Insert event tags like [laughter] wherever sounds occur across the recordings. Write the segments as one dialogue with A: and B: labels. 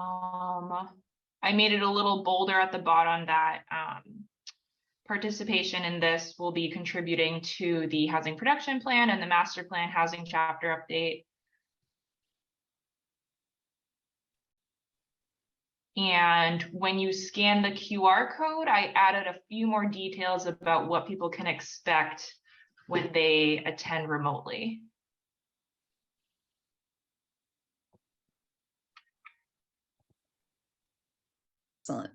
A: Um, I made it a little bolder at the bottom that, um. Participation in this will be contributing to the housing production plan and the master plan housing chapter update. And when you scan the QR code, I added a few more details about what people can expect when they attend remotely.
B: Excellent.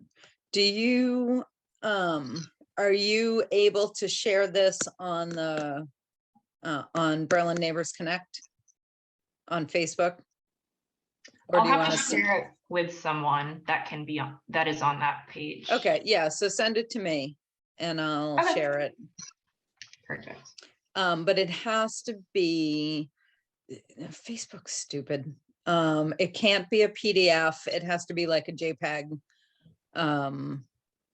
B: Do you, um, are you able to share this on the, uh, on Berlin Neighbors Connect? On Facebook? Or
A: I'll
B: do you
A: have
B: want
A: to
B: to?
A: share it with someone that can be on, that is on that page.
B: Okay, yeah, so send it to me and I'll
A: Okay.
B: share it.
A: Perfect.
B: Um, but it has to be, eh, Facebook's stupid. Um, it can't be a PDF. It has to be like a JPEG. Um,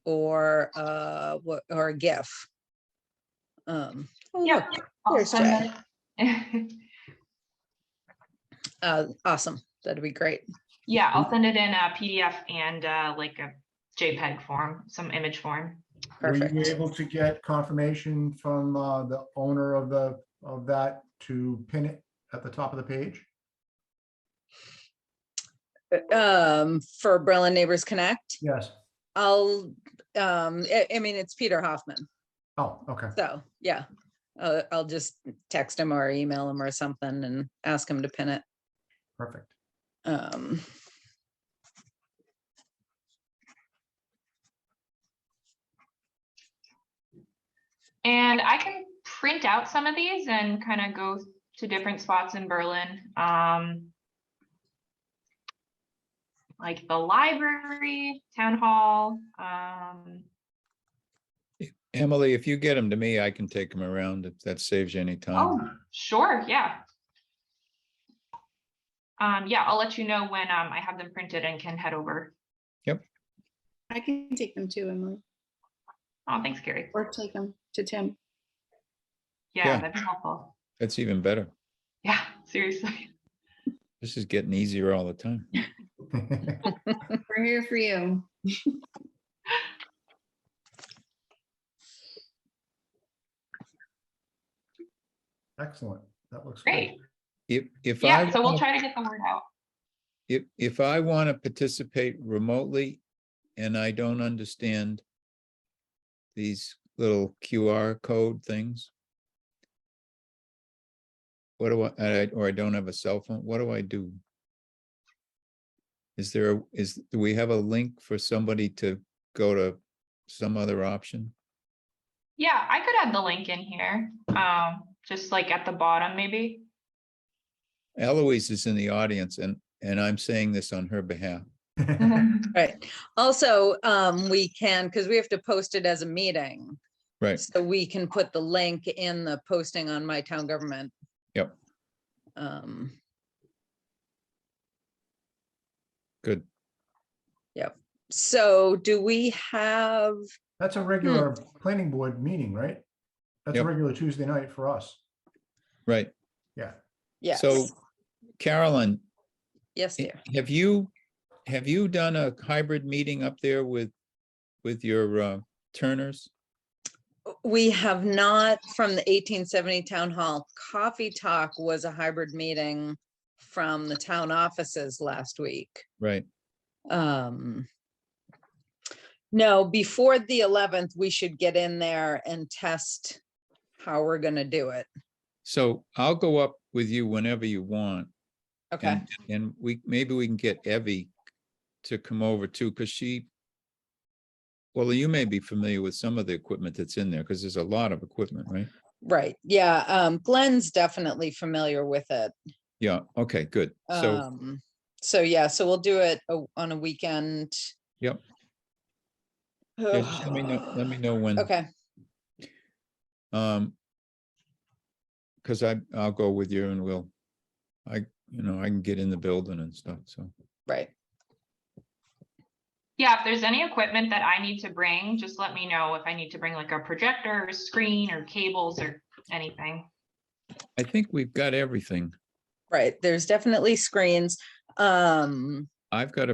B: or, uh, what, or a GIF. Um, oh,
A: Yeah.
B: look,
A: I'll
B: There's
A: send that-
B: uh, awesome. That'd be great.
A: [laughs] Yeah, I'll send it in a PDF and uh, like a JPEG form, some image form.
C: Were you
B: Perfect.
C: able to get confirmation from uh, the owner of the, of that to pin it at the top of the page?
B: Um, for Berlin Neighbors Connect,
C: Yes.
B: I'll, um, I, I mean, it's Peter Hoffman.
C: Oh, okay.
B: So, yeah, uh, I'll just text him or email him or something and ask him to pin it.
C: Perfect. [laughs]
B: Um,
A: And I can print out some of these and kind of go to different spots in Berlin. um, Like the library, town hall. um,
D: Emily, if you get them to me, I can take them around. If that saves you any
A: Oh,
D: time.
A: sure, yeah. Um, Yeah, I'll let you know when um, I have them printed and can head over.
E: I can take them too, Emily,
A: Oh, thanks, Carrie.
E: or take them to Tim.
A: Yeah,
D: Yeah.
A: that'd be helpful.
D: That's even better.
A: Yeah, seriously. [laughs]
D: This is getting easier all the time.
E: We're here for you.
C: Excellent. That looks
A: Great.
C: great.
D: If, if I,
A: Yeah, so we'll
D: wanna-
A: try to get the word out.
D: if, if I want to participate remotely and I don't understand these little QR code things, what do I, I- or I don't have a cell phone, what do I do? Is there, a- is, do we have a link for somebody to go to some other option?
A: Yeah, I could add the link in here, um, just like at the bottom, maybe.
D: Eloise is in the audience and, and I'm saying this on her behalf. Mm-hmm.
B: right. Also, um, we can, because we have to post it as a meeting.
D: Right.
B: So we can put the link in the posting on my town government.
D: Yep.
B: Um,
D: Good.
B: so do we have,
C: [laughs] That's a regular planning board meeting, right? That's a
D: Yep.
C: regular Tuesday night for us.
D: Right.
C: Yeah.
B: yes,
D: So Carolyn,
B: yes,
D: h-
B: dear.
D: have you, have you done a hybrid meeting up there with, with your uh, Turners?
B: We have not from the eighteen seventy town hall. Coffee Talk was a hybrid meeting from the town offices last week.
D: Right.
B: Um. No, before the eleventh, we should get in there and test how we're gonna do it.
D: So I'll go up with you whenever you want.
B: Okay,
D: and And we, maybe we can get Evie to come over too, because she, well, you may be familiar with some of the equipment that's in there, because there's a lot of equipment, right?
B: right, yeah, um, Glenn's definitely familiar with it.
D: Yeah, okay, good. So
B: Um, so yeah, so we'll do it a- on a weekend.
D: Yep. yeah, just let me know,
B: [sighs]
D: let me know when.
B: Okay,
D: Um, cause I, I'll go with you and we'll, I, you know, I can get in the building and stuff, so.
B: right,
A: [laughs] Yeah, if there's any equipment that I need to bring, just let me know if I need to bring like a projector or screen or cables or anything.
D: I think we've got everything.
B: right, there's definitely screens, um.
D: I've got a